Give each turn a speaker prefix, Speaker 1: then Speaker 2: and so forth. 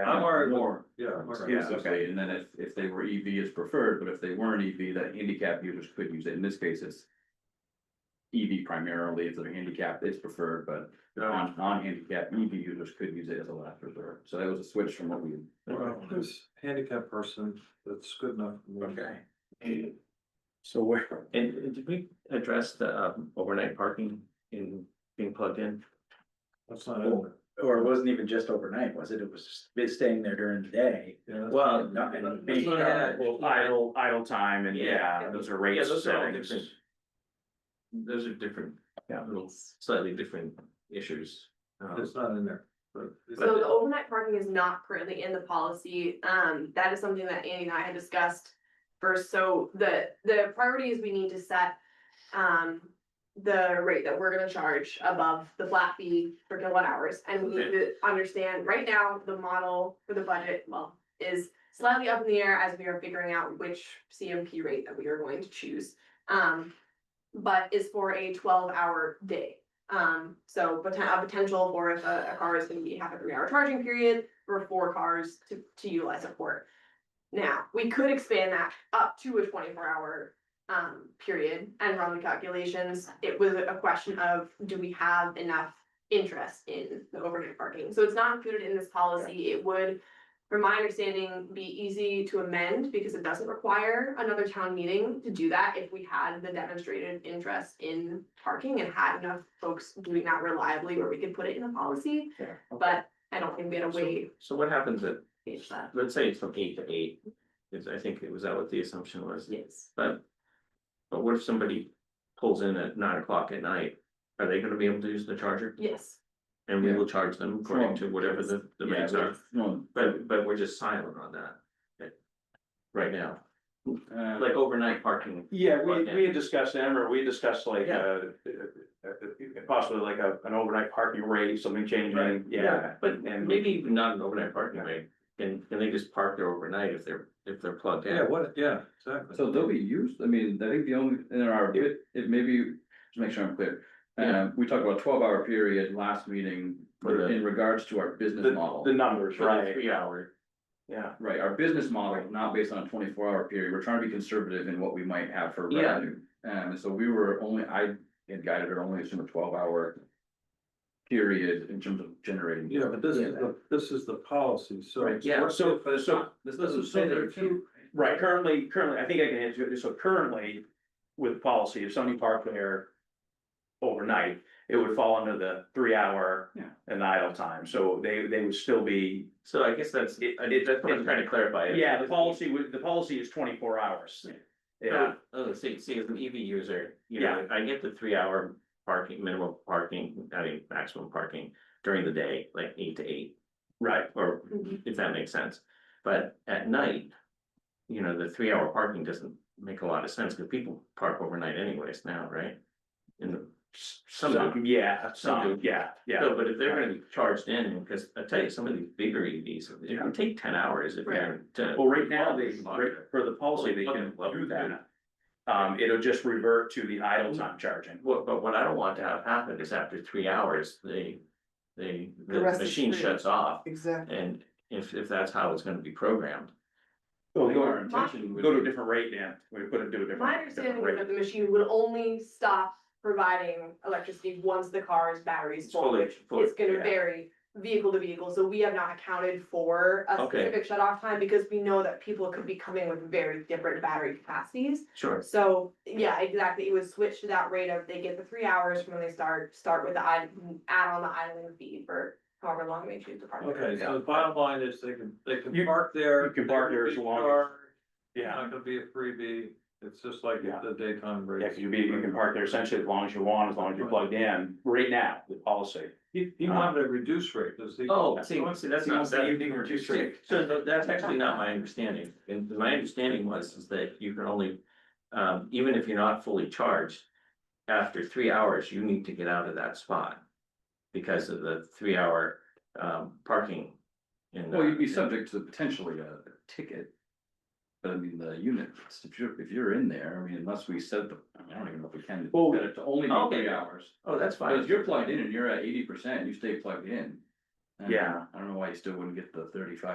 Speaker 1: I'm already,
Speaker 2: Warren.
Speaker 1: yeah. I'm already-
Speaker 2: Yeah,
Speaker 3: Yes,
Speaker 2: okay, and then if, if they were EV is preferred, but if they weren't EV, that handicap users could use it, in this case, it's. EV primarily, if they're handicapped, it's preferred, but
Speaker 1: Yeah.
Speaker 2: non, non-handicapped EV E users could use it as a last resort, so that was a switch from what we.
Speaker 1: Well, This handicap person, that's good enough. for me.
Speaker 3: Okay. So where,
Speaker 4: And and did we address the um, overnight parking in being plugged in?
Speaker 1: That's not it.
Speaker 3: or it wasn't even just overnight, was it? It was just it's staying there during the day.
Speaker 1: Yeah, that's-
Speaker 4: Well,
Speaker 3: not- and being
Speaker 4: That's what I
Speaker 3: charged.
Speaker 4: had.
Speaker 5: Well, idle, idle time and
Speaker 4: Yeah.
Speaker 5: yeah, those are
Speaker 4: Yeah,
Speaker 5: rates.
Speaker 4: those are all
Speaker 5: settings.
Speaker 4: different. Those are different,
Speaker 3: Yeah.
Speaker 4: little slightly different issues. Um,
Speaker 1: It's not in there, but. it's-
Speaker 6: So the overnight parking is not currently in the policy, um, that is something that Andy and I had discussed. First, so the, the priority is we need to set, um, the rate that we're gonna charge above the flat fee for kilowatt hours. And we need to understand, right now, the model for the budget, well, is slightly up in the air as we are figuring out which CMP rate that we are going to choose. Um, but is for a twelve-hour day. Um, so poten- a potential for if a, a car is gonna be, have a three hour charging period for four cars to, to utilize a port. Now, we could expand that up to a twenty four hour, um, period and run the calculations. It was a question of, do we have enough interest in the overnight parking? So it's not included in this policy. It would, from my understanding, be easy to amend because it doesn't require another town meeting to do that if we had the demonstrated interest in parking and had enough folks doing that reliably where we could put it in the policy.
Speaker 3: Yeah.
Speaker 6: But I don't think we had a way
Speaker 4: so- So what happens at,
Speaker 6: to change that.
Speaker 4: let's say it's from eight to eight, is I think it was that what the assumption was,
Speaker 6: Yes.
Speaker 4: but. But what if somebody pulls in at nine o'clock at night, are they gonna be able to use the charger?
Speaker 6: Yes.
Speaker 4: And we
Speaker 2: Yeah.
Speaker 4: will charge them according to whatever the the
Speaker 2: Yeah,
Speaker 4: rates are,
Speaker 2: No,
Speaker 4: but but we're just silent on that. right- Right now,
Speaker 2: uh,
Speaker 4: like overnight parking
Speaker 5: Yeah, we, we had discussed them, or we discussed like,
Speaker 4: Yeah.
Speaker 5: uh, uh, uh, possibly like a, an overnight parking rate, something changing, yeah.
Speaker 4: But
Speaker 5: And-
Speaker 4: maybe even not an overnight parking rate, can, can they just park there overnight if they're, if they're plugged
Speaker 1: Yeah,
Speaker 4: in?
Speaker 1: what, yeah, exactly.
Speaker 2: So they'll be used, I mean, I think the only, in our, it, it maybe, just make sure I'm clear.
Speaker 4: Yeah.
Speaker 2: Um, we talked about twelve hour period last meeting
Speaker 4: For the-
Speaker 2: in regards to our business model.
Speaker 5: The numbers,
Speaker 4: For the
Speaker 5: right,
Speaker 4: Three hour,
Speaker 5: yeah.
Speaker 2: Right, our business model, not based on a twenty-four hour period, we're trying to be conservative in what we might have for
Speaker 4: Yeah.
Speaker 2: revenue. Um, And so we were only, I had guided her only assume a twelve hour period in terms of generating.
Speaker 1: Yeah, but this is, the this is the policy, so.
Speaker 5: Right,
Speaker 4: yeah,
Speaker 1: What's
Speaker 5: so-
Speaker 1: it, but it's
Speaker 5: so-
Speaker 1: not- This doesn't say
Speaker 2: there
Speaker 1: there
Speaker 2: are two-
Speaker 1: too.
Speaker 5: Right, currently, currently, I think I can answer it, so currently, with policy, if somebody parked there. Overnight, it would fall under the three hour.
Speaker 2: Yeah.
Speaker 5: And idle time, so they, they would still be,
Speaker 4: so I guess that's,
Speaker 5: It-
Speaker 4: I did, that's what I'm trying to clarify.
Speaker 5: yeah, the policy would, the policy is twenty-four hours. Yeah,
Speaker 4: Yeah, oh, see, see, as an EV user, you
Speaker 5: Yeah.
Speaker 4: know, I get the three hour parking, minimum parking, I mean, maximum parking during the day, like eight to eight,
Speaker 5: right,
Speaker 4: or if that makes sense. But at night, you know, the three hour parking doesn't make a lot of sense, because people park overnight anyways now, right? In the, some. do.
Speaker 5: some, yeah, some, yeah, yeah,
Speaker 4: No, but if they're gonna be charged in, because I tell you, some of these bigger EVs, it can take ten hours if you're. to-
Speaker 5: well, right now, they,
Speaker 4: Well,
Speaker 5: right, for the policy, they can do that. Um, it'll just revert to the idle time charging.
Speaker 4: What, but what I don't want to have happen is after three hours, they, they, the
Speaker 7: The rest is
Speaker 4: machine
Speaker 7: free.
Speaker 4: shuts off.
Speaker 7: Exactly.
Speaker 4: And if, if that's how it's gonna be programmed,
Speaker 5: So
Speaker 2: I think our
Speaker 5: go,
Speaker 2: intention would
Speaker 5: go to a
Speaker 2: be-
Speaker 5: different rate, Dan, we put it to a different.
Speaker 6: My understanding
Speaker 5: different
Speaker 6: is
Speaker 5: rate.
Speaker 6: that the machine would only stop providing electricity once the car's batteries
Speaker 4: it's
Speaker 6: full,
Speaker 4: fully,
Speaker 6: which
Speaker 4: fully.
Speaker 6: is gonna
Speaker 4: yeah.
Speaker 6: vary vehicle to vehicle, so we have not accounted for a
Speaker 4: Okay.
Speaker 6: specific shut off time because we know that people could be coming with very different battery capacities.
Speaker 4: Sure,
Speaker 6: So, yeah, exactly, it would switch to that rate of they get the three hours from when they start, start with the id- add on the idling fee for however long they choose to park. there.
Speaker 1: Okay, so the bottom line is they can, they can
Speaker 5: You-
Speaker 1: park there.
Speaker 5: you can park there as long as-
Speaker 1: It's
Speaker 5: Yeah,
Speaker 1: not gonna be a freebie, it's just like
Speaker 5: Yeah.
Speaker 1: the daytime
Speaker 5: yeah,
Speaker 1: break.
Speaker 5: cause you be, you can park there essentially as long as you want, as long as you're plugged in, right now, the policy.
Speaker 1: He,
Speaker 5: Uh-huh.
Speaker 1: he wanted a reduced rate, does he?
Speaker 4: oh, see, see, that's not, that,
Speaker 5: or two
Speaker 4: So tha- that's actually not my understanding, and my understanding was is that you can only, um, even if you're not fully charged. After three hours, you need to get out of that spot. Because of the three hour um parking. in the-
Speaker 2: Well, you'd be subject to potentially a ticket. But I mean, the unit, if you're, if you're in there, I mean, unless we set the, I mean, I don't even know if we can.
Speaker 5: Well,
Speaker 2: set it To only be
Speaker 4: okay.
Speaker 2: three hours.
Speaker 4: Oh, that's
Speaker 2: But
Speaker 4: fine,
Speaker 2: if you're plugged in and you're at eighty percent, you stay plugged in. Um,
Speaker 5: Yeah.
Speaker 2: I don't know why you still wouldn't get the thirty-five